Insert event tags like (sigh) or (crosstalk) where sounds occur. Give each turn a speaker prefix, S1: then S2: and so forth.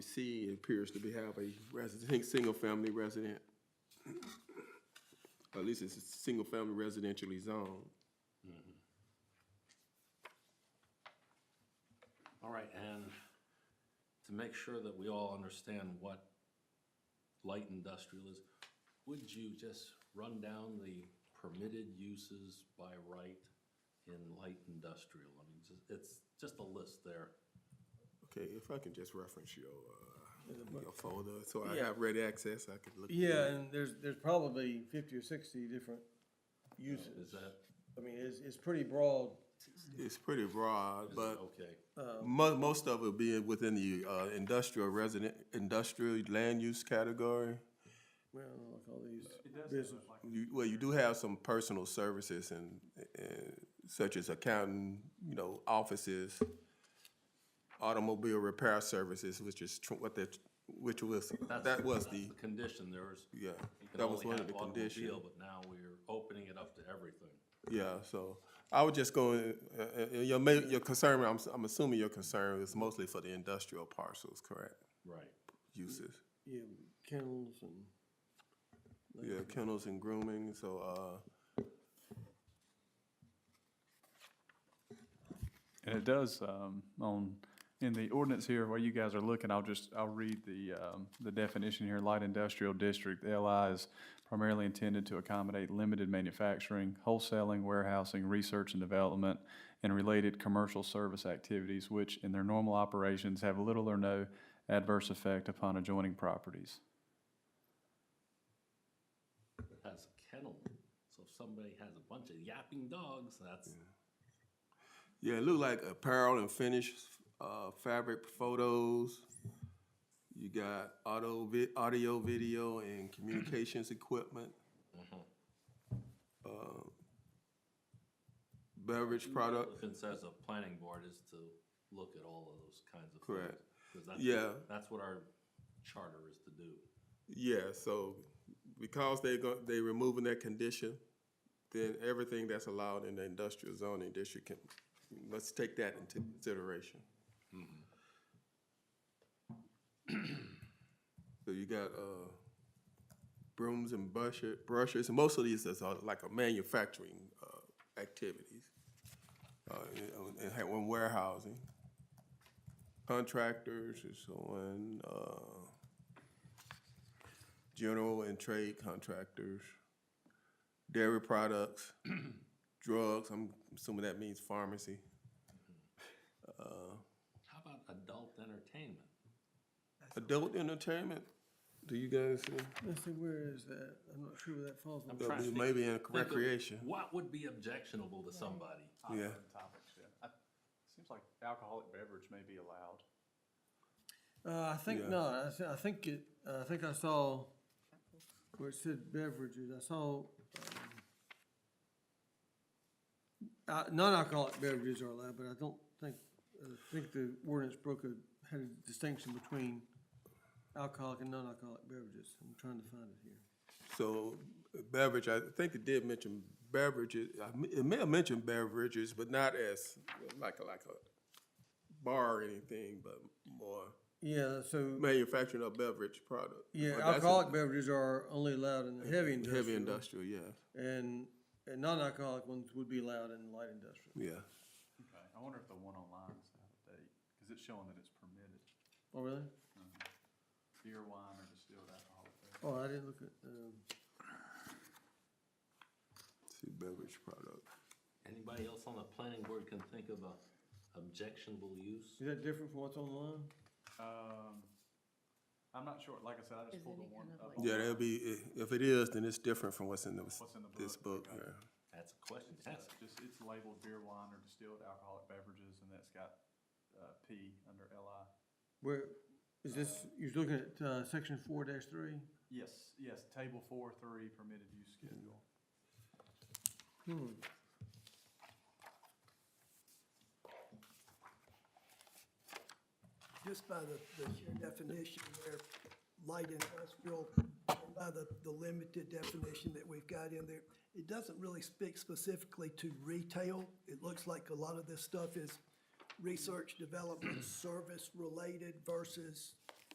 S1: C appears to be have a resident, single family resident. At least it's a single family residentially zoned.
S2: All right, and to make sure that we all understand what light industrial is, would you just run down the permitted uses by right in light industrial? I mean, just- it's just a list there.
S1: Okay, if I can just reference your, uh, your folder, so I have ready access, I could look. through
S3: Yeah,
S1: it.
S3: and there's, there's probably fifty or sixty different
S2: Is
S3: uses.
S2: that,
S3: I mean, it's, it's pretty broad.
S1: It's pretty broad,
S2: is
S1: but
S2: that okay?
S1: Mo- most of it being within the, uh, industrial resident, industrial land use category.
S3: Well, like all these business.
S1: You, well, you do have some personal services and, and such as accounting, you know, offices, automobile repair services, which is tr- what that, which was,
S2: That's-
S1: that was
S2: that's
S1: the,
S2: Condition, there was.
S1: yeah,
S2: you can
S1: that was
S2: only
S1: one of
S2: have
S1: the conditions.
S2: automobile, But now we're opening it up to everything.
S1: Yeah, so I would just go, uh, uh, uh, your ma- your concern, I'm, s- I'm assuming your concern is mostly for the industrial parcels, correct?
S2: Right.
S1: Uses,
S3: Yeah, kennels and,
S2: Mm-hmm.
S1: yeah, kennels and grooming, so, uh,
S4: And it does, um, on, in the ordinance here where you guys are looking, I'll just, I'll read the, um, the definition here, light industrial district, The LI is primarily intended to accommodate limited manufacturing, wholesaling, warehousing, research and development, and related commercial service activities, which in their normal operations have little or no adverse effect upon adjoining properties.
S2: has a kennel. So if somebody has a bunch of yapping dogs, that's,
S1: Yeah, it looked like apparel and finish, uh, fabric photos. You got auto vi- audio, video, and communications equipment. Uh, Beverage product,
S2: if it says a planning board is to look at all of those kinds of things.
S1: Correct.
S2: 'Cause that's-
S1: Yeah.
S2: That's what our charter is to do.
S1: yeah, so because they go, they removing that condition, then everything that's allowed in the industrial zoning district can, let's take that into consideration. So you got, uh, brooms and brushes, brushes, and most of these is uh, like a manufacturing, uh, activities. Uh, and- and had one warehousing, contractors and so on, uh, general and trade contractors, dairy
S3: (clears throat)
S1: products, drugs, I'm assuming that means pharmacy.
S2: How about adult entertainment?
S1: Adult entertainment, do you guys, uh,
S3: let's see, where is that? I'm not sure where that falls. on the-
S2: trying to think-
S1: maybe in
S2: think of
S1: recreation,
S2: What would be objectionable to somebody?
S1: yeah.
S4: Topics, yeah. Seems like alcoholic beverage may be allowed.
S3: Uh, I think
S1: Yeah.
S3: not. I, thi- I think it, uh, I think I saw where it said beverages. I saw, um, uh, non-alcoholic beverages are allowed, but I don't think, I think the ordinance broke a, had a distinction between alcoholic and non-alcoholic beverages. I'm trying to find it here.
S1: So beverage, I think it did mention beverages, I m- it may have mentioned beverages, but not as like, a like a bar or anything, but more
S3: Yeah, so,
S1: manufacturing of beverage product.
S3: yeah,
S1: But that's a-
S3: alcoholic beverages are only allowed in the heavy industrial.
S1: Heavy industrial, yeah,
S3: And, and non-alcoholic ones would be allowed in light industrial.
S1: yeah.
S4: Okay, I wonder if the one online is out of date, because it's showing that it's permitted,
S3: Oh, really?
S4: beer, wine, or distilled alcoholic beverage.
S3: Oh, I didn't look at, um.
S1: See beverage product.
S2: Anybody else on the planning board can think of a objectionable use?
S3: Is that different from what's online?
S4: Um, I'm not sure, like I said, I just pulled the one up.
S1: Yeah, that'll be, i- if it is, then it's different from what's in the,
S4: What's in the
S1: this book,
S4: book,
S1: yeah.
S2: That's a question to
S4: It's
S2: ask.
S4: just, it's labeled beer, wine, or distilled alcoholic beverages, and that's got, uh, P under LI.
S3: Where, is this, you're looking at, uh, section four dash three?
S4: Yes, yes, table four, three, permitted use schedule.
S3: Hmm.
S5: just by the, the definition there, light industrial, and by the, the limited definition that we've got in there, it doesn't really speak specifically to retail. It looks like a lot of this stuff is research, development, service-related versus